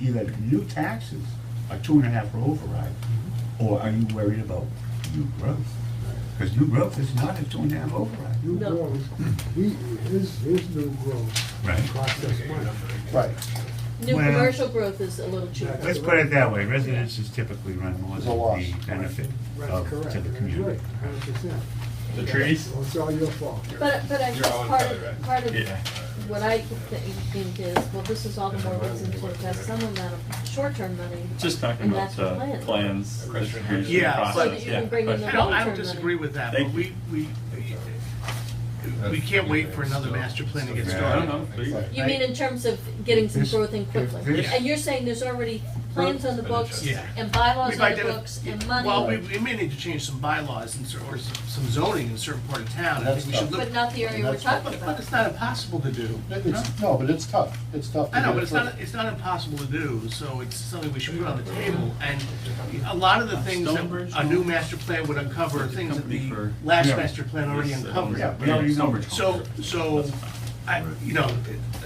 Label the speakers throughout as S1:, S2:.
S1: either new taxes, a two and a half override, or are you worried about new growth? Because new growth is not a two and a half override.
S2: New
S3: No.
S2: growth, he, his, his new growth
S1: Right.
S2: cost us money.
S4: Right.
S3: New
S1: Well-
S3: commercial growth is a little cheaper.
S1: Let's put it that way, residences typically run more
S4: It's a loss.
S1: than the benefit
S2: That's
S1: of,
S2: correct.
S1: to the
S2: That's
S1: community.
S2: right. Hundred percent.
S5: The trees?
S2: Well, It's all your fault.
S3: But, but I think
S5: You're all
S3: part
S5: entirely
S3: of,
S5: right.
S3: part of
S5: Yeah.
S3: what I think think is, well, this is all the more reason to invest some amount of short-term money.
S5: Just talking
S3: in
S5: about
S3: that
S5: uh,
S3: plan.
S5: plans. the
S6: Question.
S5: strategic
S7: Yeah,
S5: process,
S7: but- So that
S3: you can
S5: yeah,
S3: bring in
S5: but-
S3: the
S7: I don't, I
S3: long-term
S7: don't disagree with that, but
S5: Thank
S7: we, we, we can't wait for another master plan to get
S1: Yeah.
S5: I don't
S7: started.
S5: know, but-
S3: You mean in terms of getting some
S1: This-
S3: growth in quickly?
S1: this-
S3: And you're saying there's already plans on the books
S7: Yeah.
S3: and bylaws
S7: We've
S3: on the
S7: identi-
S3: books and money?
S7: Well, we, we may need to change some bylaws and, cer- or s- some zoning in a certain part of town, I
S4: That's
S7: think we should
S4: tough.
S7: look.
S3: But not the area we're talking
S7: But, but
S3: about.
S7: it's not impossible to do.
S4: It's, no, but it's tough, it's tough. to
S7: I know,
S4: get
S7: but it's
S4: through.
S7: not, it's not impossible to do, so it's something we should put on the table. And a lot of the things that a new master plan would uncover are things that
S5: Company
S7: the
S5: for-
S7: last
S1: Yeah.
S7: master plan already
S5: This, uh,
S7: uncovered.
S1: Yeah, we already know.
S7: So, so, I, you know,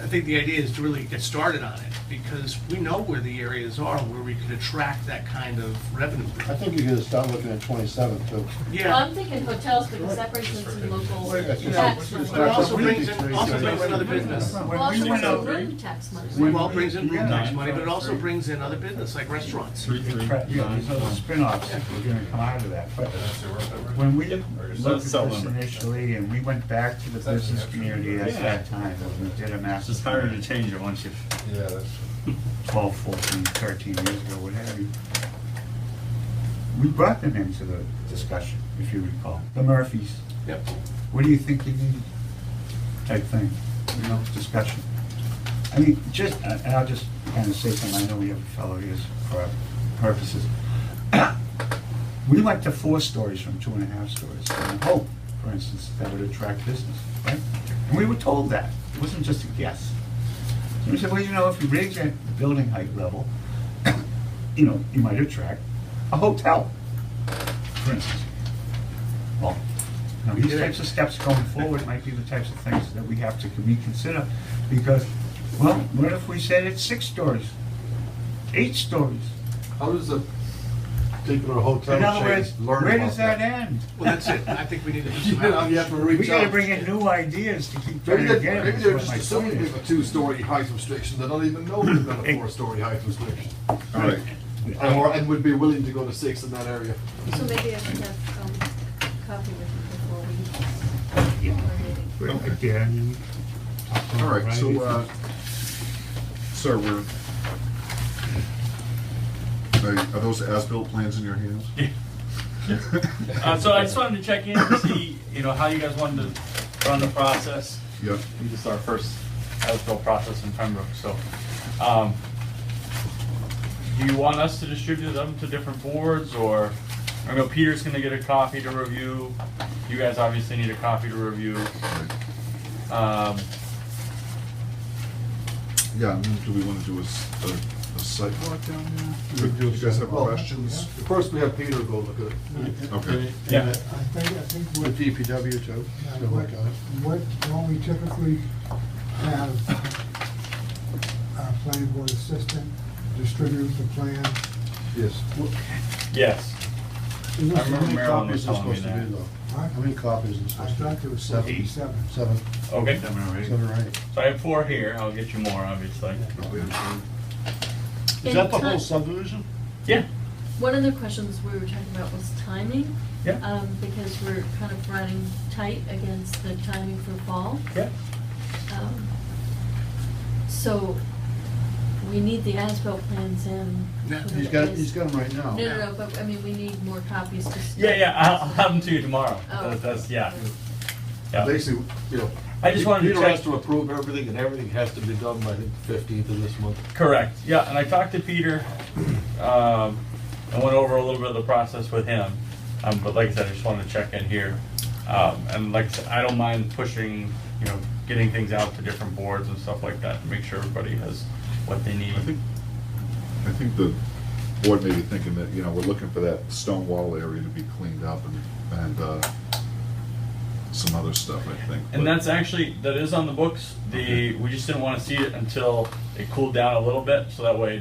S7: I think the idea is to really get started on it, because we know where the areas are where we could attract that kind of revenue.
S4: I think you're gonna start looking at twenty-seven too.
S3: Well,
S7: Yeah,
S3: I'm thinking hotels because that brings in some local
S4: That's just-
S3: tax money.
S7: but it also brings in, also brings in other business.
S3: Well,
S1: When
S3: also
S1: we
S3: brings
S1: went
S3: in
S1: out,
S3: room tax money.
S7: Well, it brings in real tax money, but it also brings in other business, like restaurants.
S5: Three, three,
S1: yeah, there's other
S5: nine,
S1: spin-offs that are gonna come out of that, but when
S6: When
S1: we
S5: Yep.
S1: looked at this initially, and we went back to the
S6: That's
S1: business
S6: actually-
S1: community at
S5: Yeah.
S1: that time, when we did a
S5: It's
S1: master
S5: just harder
S1: plan
S5: to change it once you've
S6: Yeah, that's.
S1: 12, 14, 13 years ago, what have you, we brought them into the discussion, if you recall, the Murphys.
S7: Yep.
S1: What do you think you need? Type thing, you know, discussion. I mean, just, and I'll just kind of say something, I know we have a fellow here for our purposes. We like to four stories from two and a half stories, and hope, for instance, that would attract business, right? And we were told that, it wasn't just a guess. So we said, well, you know, if you raise that building height level, you know, you might attract a hotel, for instance. Well, now these types of steps going forward might be the types of things that we have to reconsider, because, well, what if we said it's six stories, eight stories?
S6: How does a particular hotel
S1: In other words,
S6: chain learn
S1: where
S6: about
S1: does that
S6: that?
S1: end?
S7: Well, that's it, I think we need to do
S6: You
S7: some
S6: know, you have to
S7: outreach.
S6: reach
S1: We gotta
S6: out.
S1: bring in new ideas to keep
S6: Maybe
S1: trying to
S6: they're,
S1: get.
S6: maybe
S1: at,
S6: they're
S1: is what
S6: just
S1: my
S6: assuming
S1: point
S6: we
S1: is.
S6: have a two-story height restriction, they don't even know we've got a four-story height restriction.
S1: Right.
S6: And, or, and would be willing to go to six in that area.
S3: So maybe I should have, um, coffee with you before we,
S1: Yeah.
S3: our meeting.
S1: We'll get there and talk about
S8: All right, so,
S1: variety.
S8: uh, sir, we're, are are those as-built plans in your hands?
S5: Uh, so I just wanted to check in and see, you know, how you guys wanted to run the process.
S8: Yep.
S5: This is our first as-built process in Pembroke, so, um, do you want us to distribute them to different boards, or, I know Peter's gonna get a copy to review, you guys obviously need a copy to review, um,
S8: Yeah, I mean, do we wanna do a, s- a- a site walk down there? Do you guys have
S6: Well,
S8: questions?
S6: First, we have Peter go look at it.
S8: Okay.
S5: Yeah.
S2: I think, I think what
S4: With DPW too.
S2: Yeah,
S4: Oh my
S2: What,
S4: God.
S2: what, don't we typically have our uh, planning board assistant distribute the plan?
S4: Yes.
S5: yes.
S4: How
S5: remember
S4: many
S5: Marilyn was
S4: copies is
S5: telling me
S4: supposed to be though?
S2: Huh?
S4: How many copies is
S2: I
S4: supposed to be?
S2: thought there was
S4: Seven.
S2: seventy-seven.
S4: Seven,
S5: Okay,
S1: Am I right?
S4: seven or eight.
S5: so I have four here, I'll get you more, obviously.
S3: Is that the whole
S4: subdivision?
S5: Yeah,
S3: One of the questions we were talking about was timing.
S5: Yeah.
S3: Um, because we're kind of running tight against the timing for fall.
S5: yeah.
S3: Um, So we need the ASBIL plans in.
S7: No,
S3: so that
S4: He's got,
S3: it
S4: he's
S3: is-
S4: got them right now.
S3: No, no, no, but I mean, we need more copies to.
S5: Yeah, yeah, I'll, I'll have them to you tomorrow.
S3: Oh.
S5: That's, that's- yeah. Yeah.
S6: Basically, you know.
S5: I just wanted to
S6: Peter has
S5: check-
S6: to approve everything, and everything has to be done by, I think, fifteenth of this month.
S5: Correct, yeah, and I talked to Peter, um, I went over a little bit of the process with him. Um, but like I said, I just wanted to check in here. Um, and like I said, I don't mind pushing, you know, getting things out to different boards and stuff like that, to make sure everybody has what they need.
S8: I think, I think the board may be thinking that, you know, we're looking for that stone wall area to be cleaned up and, and, uh, some other stuff, I think. but-
S5: And that's actually, that is on the books, the, we just didn't wanna see it until it cooled down a little bit, so that way